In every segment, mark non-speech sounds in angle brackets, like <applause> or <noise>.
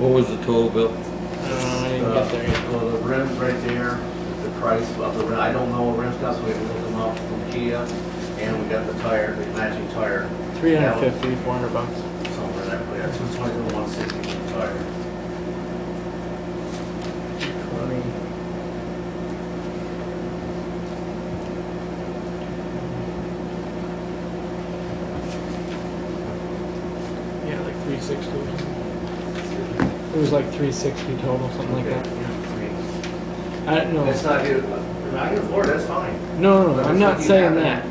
What was the total bill? Uh, I didn't get there yet. Well, the rim's right there, the price of the rim, I don't know what rim's got, so we can look them up from Kia, and we got the tire, the matching tire. 350, 400 bucks. Somewhere in that, we got two twenty to one sixty for the tire. 20. Yeah, like 360. It was like 360 total, something like that. that. I don't know. That's not here, not here in Florida, that's fine. No, no, no, I'm not That's saying what you that.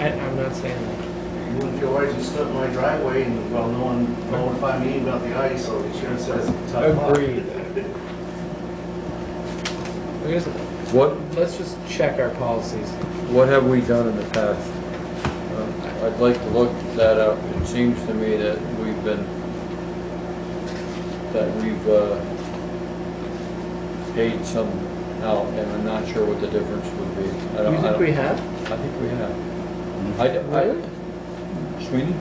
have. I, I'm not saying that. <laughs> You wouldn't feel right to stood in my driveway and, well, no one notified me about the ice, so the insurance says tough luck. Agreed. I guess, What, let's just check our policies. what have we done in the past? Uh, I'd like to look that up. It seems to me that we've been, that we've, uh, paid some out, and I'm not sure what the difference would be. I don't- I You think don't- we have? I think we have. I, I, Really? Sweeney?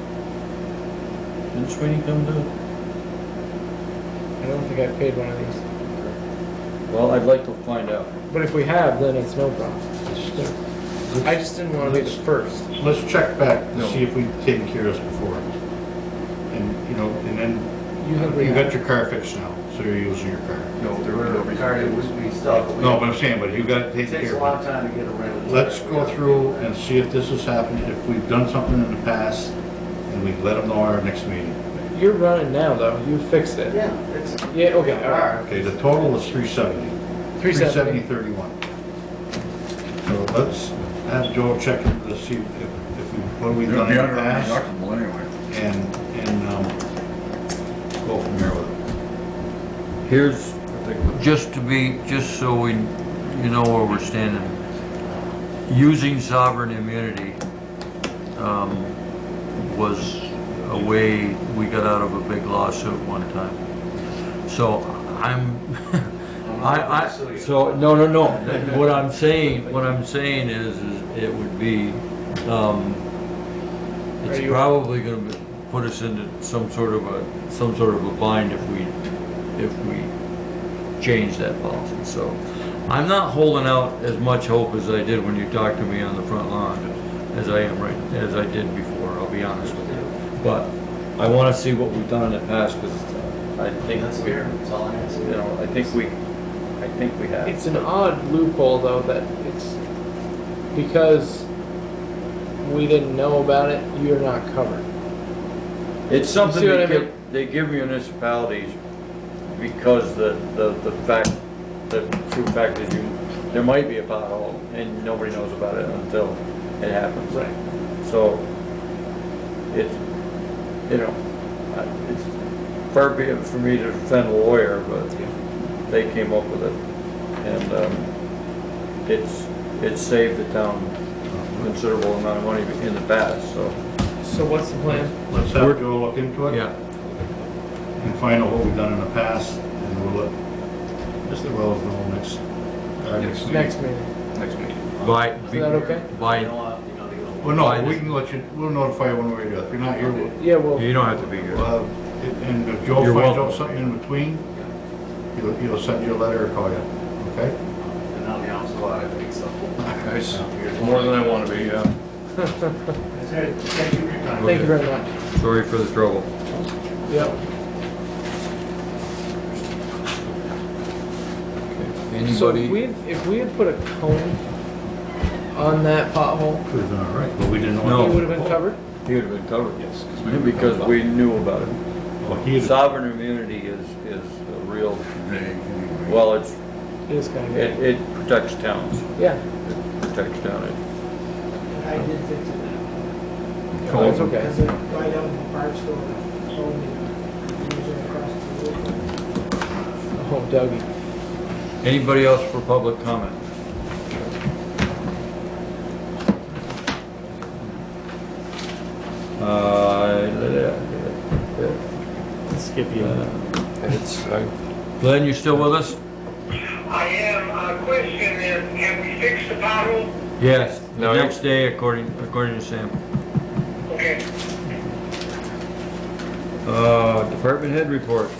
Didn't Sweeney come to? I don't think I've paid one of these. Well, I'd like to find out. But if we have, then it's no problem. I just didn't want to be the first. Let's check back No. to see if we've taken care of this before. And, you know, and then You have, you got your car fixed now, so you're using your car. No, there were, Ricardo, we, we stopped. but we- No, but I'm saying, but you got to It take takes care a of long time to get a rental. it. Let's go through and see if this has happened, if we've done something in the past, and we let them know our next meeting. you're running now though. You fixed it. Yeah, it's. Yeah, okay, all right. Okay, the total was three seventy. 370. thirty-one. So let's have Joe check into this, see if, if we, what we've It'll done in be the under our past, deductible anyway. and, and, um, go from there with it. Here's, just to be, just so we, you know where we're standing. Using sovereign immunity, um, was a way we got out of a big lawsuit one time. So I'm, <laughs> I, I, so, no, no, no. What I'm saying, what I'm saying is, is it would be, um, Are it's you- probably gonna be- put us into some sort of a, some sort of a bind if we, if we change that policy, so. I'm not holding out as much hope as I did when you talked to me on the front lawn, as I am right, as I did before, I'll be honest with you. But I wanna see what we've done in the past, because I think That's we're, fair, that's all I ask. you know, I think we, I think we have. It's an odd loophole though that it's because we didn't know about it. You're not covered. It's something You see what they I mean? give, they give municipalities because the, the, the fact, the true fact is you, there might be a pothole and nobody knows about it until it happens. Right. So it's, you know, I- it's far be it for me to defend a lawyer, but they came up with it. And, um, it's, it's saved the town a considerable amount of money in the past, so. So what's the plan? Let's have Joe look into it. And find out what we've done in the past, and we'll let Mr. Wells know next, our next meeting. Next meeting. Next meeting. By, Is that okay? You know what, you know, you know. Well, no, we can let you, we'll notify you one way or the other. If you're not here, we'll, Yeah. Well. You don't have to be here. Well, if- and if Joe You're finds welcome. out something in between, he'll, he'll send you a letter or call you, okay? And now the office, lot, I think so. Nice. More than I want to be, yeah. That's it. Thank you for your time. Thank you very much. Sorry for the trouble. Yep. So if we Anybody? had, if we had put a cone on that pothole, Could have been all right, but we didn't No. know. it would have been covered. He would have been covered. Yes. Because we knew about it. Well, he had- Sovereign immunity is, is a real, Well, well, it's, It is kind of. it, it protects towns. Yeah. It protects town. I did fix it now. That's okay. Because it right out in the park store, told me, usually across the road. Oh, Dougie. Anybody else for public comment? Uh, Skip it's, I- Glenn, you still with us? I am, uh, question is, have we fixed the pothole? Yes. No, The you- next day, according, according to Sam. Okay. Uh, department head reports.